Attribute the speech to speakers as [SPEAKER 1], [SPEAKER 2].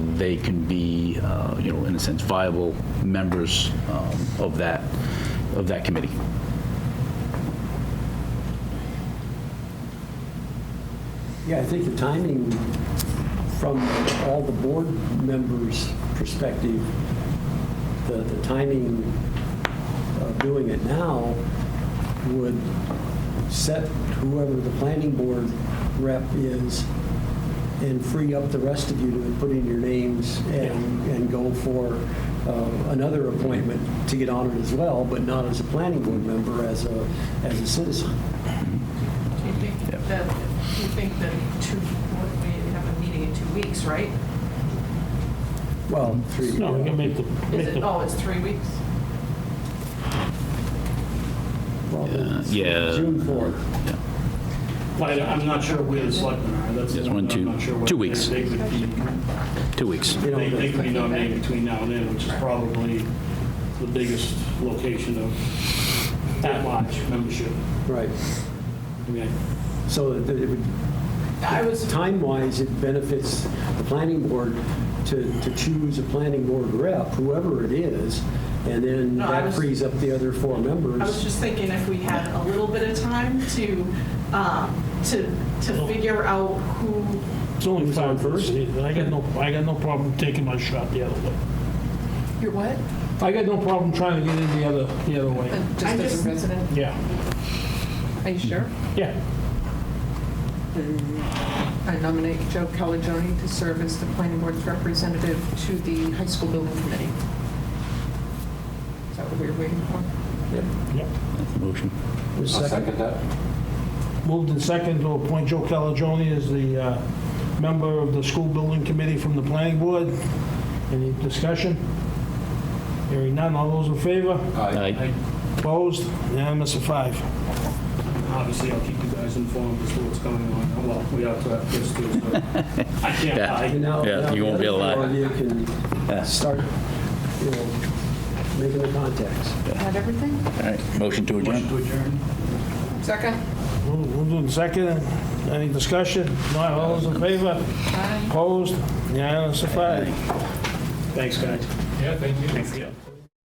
[SPEAKER 1] they can be, uh, you know, in a sense, viable members um, of that, of that committee.
[SPEAKER 2] Yeah, I think the timing from all the board members' perspective, the, the timing of doing it now would set whoever the planning board rep is and free up the rest of you to put in your names and, and go for uh, another appointment to get on it as well, but not as a planning board member, as a, as a citizen.
[SPEAKER 3] Do you think that, do you think that two, what, we have a meeting in two weeks, right?
[SPEAKER 2] Well, three.
[SPEAKER 4] No, we can make the,
[SPEAKER 3] Is
[SPEAKER 4] make
[SPEAKER 3] it,
[SPEAKER 4] the,
[SPEAKER 3] oh, it's three weeks?
[SPEAKER 2] Well,
[SPEAKER 1] Uh, yeah.
[SPEAKER 2] June 4th.
[SPEAKER 1] Yeah.
[SPEAKER 4] but I'm not sure where the selectmen are. That's the
[SPEAKER 1] Yes,
[SPEAKER 4] one
[SPEAKER 1] one,
[SPEAKER 4] that I'm
[SPEAKER 1] two-
[SPEAKER 4] not sure what-
[SPEAKER 1] two weeks.
[SPEAKER 4] They would be,
[SPEAKER 1] Two weeks.
[SPEAKER 2] You know,
[SPEAKER 4] they- they could be
[SPEAKER 3] that's-
[SPEAKER 4] nominated between now and then, which is probably the biggest location of that large membership.
[SPEAKER 2] Right.
[SPEAKER 4] I mean, I-
[SPEAKER 2] So that it would,
[SPEAKER 3] I was,
[SPEAKER 2] time-wise, it benefits the planning board to, to choose a planning board rep, whoever it is, and then
[SPEAKER 3] No, I
[SPEAKER 2] that
[SPEAKER 3] was-
[SPEAKER 2] frees up the other four
[SPEAKER 3] I was
[SPEAKER 2] members.
[SPEAKER 3] just thinking if we had a little bit of time to, um, to, to figure out who,
[SPEAKER 4] It's only
[SPEAKER 2] Who's on
[SPEAKER 4] five
[SPEAKER 2] first?
[SPEAKER 4] first. I got no, I got no problem taking my shot the other way.
[SPEAKER 3] your what?
[SPEAKER 4] I got no problem trying to get in the other, the other way.
[SPEAKER 5] Just
[SPEAKER 3] I'm
[SPEAKER 5] as
[SPEAKER 3] just-
[SPEAKER 5] a resident,
[SPEAKER 4] Yeah,
[SPEAKER 5] are you sure?
[SPEAKER 4] yeah.
[SPEAKER 5] I nominate Joe Caligione to serve as the planning board's representative to the high school building committee. Is that what we were waiting for?
[SPEAKER 4] Yep.
[SPEAKER 1] Motion.
[SPEAKER 2] The
[SPEAKER 6] I'll
[SPEAKER 2] second-
[SPEAKER 6] second that.
[SPEAKER 4] Moved in second to appoint Joe Caligione as the uh, member of the school building committee from the planning board. Any discussion? Hearing none, all those in favor?
[SPEAKER 6] Aye.
[SPEAKER 1] Aye.
[SPEAKER 4] Opposed? Unanimous of five. Obviously, I'll keep you guys informed as to what's going on. Well, we have to have this too, so I can't
[SPEAKER 1] Yeah.
[SPEAKER 4] I-
[SPEAKER 2] And now-
[SPEAKER 1] Yeah,
[SPEAKER 2] now
[SPEAKER 1] you won't be
[SPEAKER 2] the other
[SPEAKER 1] allowed.
[SPEAKER 2] four of You can start, you know, making the contacts.
[SPEAKER 5] Had everything?
[SPEAKER 1] All right, motion to
[SPEAKER 4] Motion
[SPEAKER 1] adjourn.
[SPEAKER 4] to adjourn.
[SPEAKER 5] Second?
[SPEAKER 4] Moved in second, any discussion? Not all those in favor?
[SPEAKER 5] Aye.
[SPEAKER 4] Opposed? Unanimous of five. Thanks, guys. Yeah, thank you.